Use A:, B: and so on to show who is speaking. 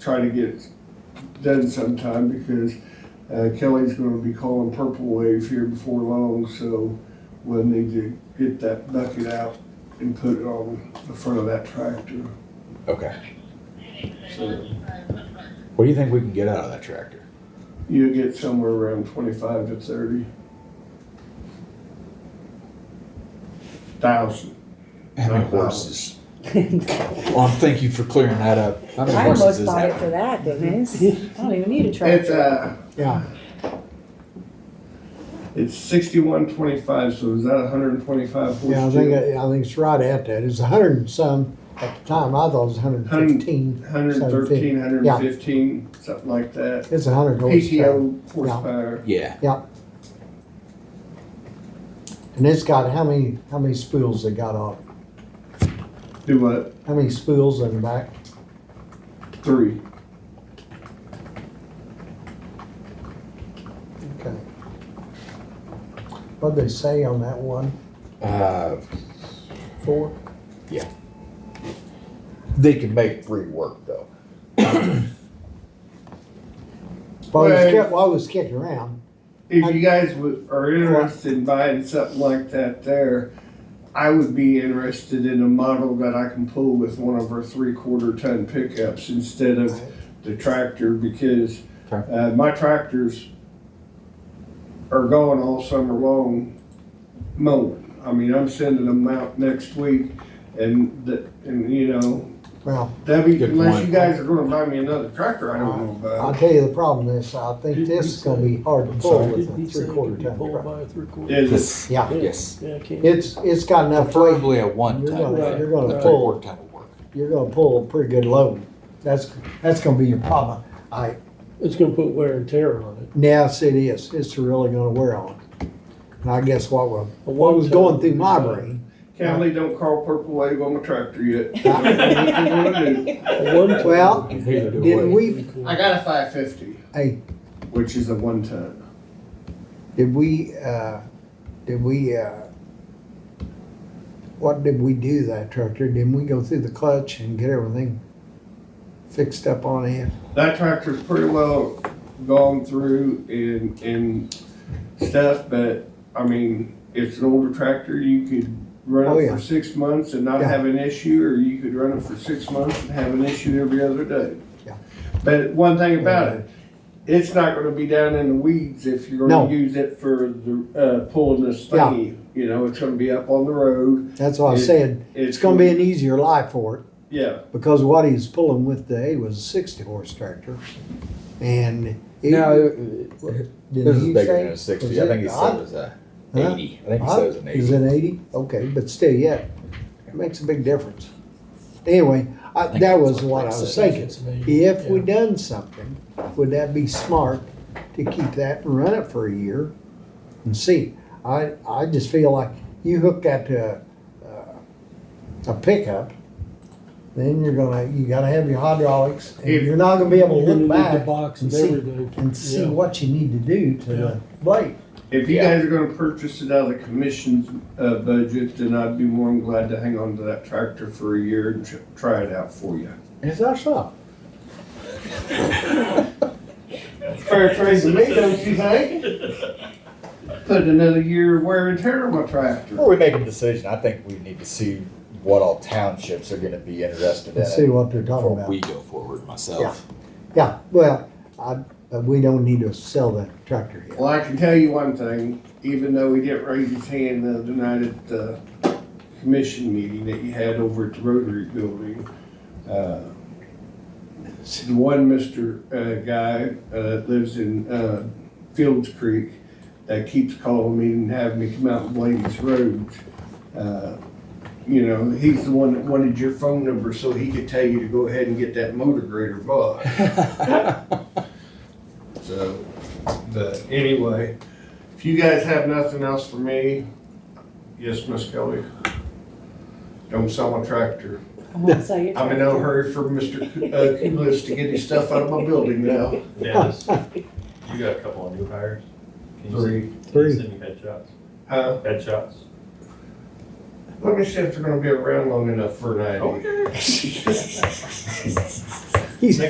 A: try to get done sometime because uh, Kelly's gonna be calling Purple Wave here before long, so we'll need to get that bucket out and put it on the front of that tractor.
B: Okay.
A: So
B: What do you think we can get out of that tractor?
A: you'll get somewhere around twenty-five to thirty thousand.
B: How many
A: Not
B: horses? Well, thank you for clearing that up. How many
C: I
B: horses
C: almost
B: is
C: bought it for
B: that?
C: that, Denise. I don't even need a
A: It's,
C: tractor.
A: uh,
D: Yeah,
A: it's sixty-one twenty-five, so is that hundred and twenty-five
D: yeah, I
A: horse?
D: think, it- I think it's right at that. It's a hundred and some, at the time, I thought it was a hundred and fifteen.
A: Hundred and thirteen, hundred
D: Yeah.
A: and fifteen, something like that.
D: It's a hundred
A: E
D: horsepower.
A: PTO horsepower,
B: Yeah,
D: And it's got, how many, how many spools it got off?
A: do what,
D: How many spools in the back?
A: three.
D: Okay. What'd they say on that one?
B: uh,
D: Four?
B: they can make free work though.
D: While it was,
A: Well-
D: ki- while it was kicking around,
A: If you guys would, are interested in buying something like that there, I would be interested in a model that I can pull with one of our three-quarter ton pickups instead of the tractor because
B: Okay.
A: uh, my tractors are going all summer long mowing. I mean, I'm sending them out next week and, the- and you know,
D: well,
A: that'd be,
B: Good
A: unless
B: point.
A: you guys are gonna buy me another tractor, I don't know
D: I'll
A: about.
D: tell you the problem is, I think
E: Did
D: this
E: he
D: is gonna
E: say-
D: be hard to
E: I'm
D: pull
E: sorry,
D: with
E: did
D: a
E: he say it
D: three-quarter
E: could be
D: ton
E: pulled
D: truck.
E: by a three-quarter?
A: Is it
D: Yeah,
B: Yes.
E: Yeah, I can't.
D: it's, it's got enough weight,
B: Preferably a one
D: You're
B: ton.
D: gonna-
B: but
D: you're gonna
B: a
D: pull.
B: three-quarter ton will work.
D: you're gonna pull a pretty good load. That's, that's gonna be your problem. I,
E: It's gonna put wear and tear on it.
D: yes, it is, it's really gonna wear on. And I guess what was,
E: A
D: what was
E: one-ton
D: going through
A: uh,
D: my
E: would be
D: brain,
A: Kelly, don't call Purple Wave on my tractor yet. I don't know what they're gonna do.
E: A one-ton-
D: Well,
B: Neither do
D: didn't
B: we.
D: we,
A: I got a five fifty.
D: Hey.
A: Which is a one ton.
D: did we, uh, did we, uh, what did we do to that tractor? Didn't we go through the clutch and get everything fixed up on it?
A: That tractor's pretty well gone through and, and stuff, but, I mean, it's an older tractor, you could
D: Oh,
A: run it
D: yeah.
A: for six months and not
D: Yeah.
A: have an issue, or you could run it for six months and have an issue every other day.
D: Yeah.
A: But one thing about it, it's not gonna be down in the weeds if you're
D: No.
A: gonna use it for the, uh, pulling this
D: Yeah.
A: thing. You know, it's gonna be up on the road.
D: That's what I
A: It-
D: said, it's gonna be an e- easier life for it.
A: Yeah,
D: because what he was pulling with today was a 60 horse tractor. And it, did
B: uh, This is
D: he
B: bigger
D: say-
B: than a
D: was
B: sixty, I think he said it was a
D: Huh?
B: eighty, I think he
D: Huh?
B: said it was an
D: Is
B: eighty.
D: it 80? Okay, but still, yeah, it makes a big difference. Anyway, I,
B: think
D: that
B: it's
D: was
B: like
D: what I
B: six
D: was
E: Think
D: thinking.
E: it's an eighty.
D: If we
E: Yeah.
D: done something, would that be smart to keep that and run it for a year and see? I, I just feel like you hook that to a, a pickup, then you're gonna, you gotta have your hydraulics. And
A: If-
D: you're not gonna be able
E: You're
D: to
E: gonna need
D: look
E: The
D: back
E: box
D: and
E: and
D: see,
E: everything.
D: and see
E: Yeah.
D: what you need to do to the blade.
A: If you
B: Yeah.
A: guys are gonna purchase it out of the commission's, uh, budget, then I'd be more than glad to hang on to that tractor for a year and tr- try it out for you.
B: It's our shop.
A: Fair trade to me, don't you think? Put another year of wear and tear on my tractor.
B: Before we make a decision, I think we need to see what all townships are gonna be interested in
D: And see
B: it
D: what they're talking
B: before
D: about.
B: we go forward myself.
D: Yeah, well, I, but we don't need to sell that tractor yet.
A: Well, I can tell you one thing, even though he didn't raise his hand the other night at the commission meeting that you had over at the Rotary Building, uh, the one Mr. uh, guy uh, that lives in uh, Fields Creek that keeps calling me and having me come out and blade his roads. uh, You know, he's the one that wanted your phone number so he could tell you to go ahead and get that motor grader bought. So, but anyway, if you guys have nothing else for me, yes, Miss Kelly. Don't sell my tractor.
C: I won't sell your
A: I'm in no
C: tractor.
A: hurry for Mr. K- uh, Kulis to get his stuff out of my building now.
F: Dennis, you got a couple of new hires. Can you send-
A: Three.
F: Can
D: Three.
F: you send me headshots?
A: Huh?
F: Headshots?
A: Let me see if they're gonna be around long enough for an ID.
D: He's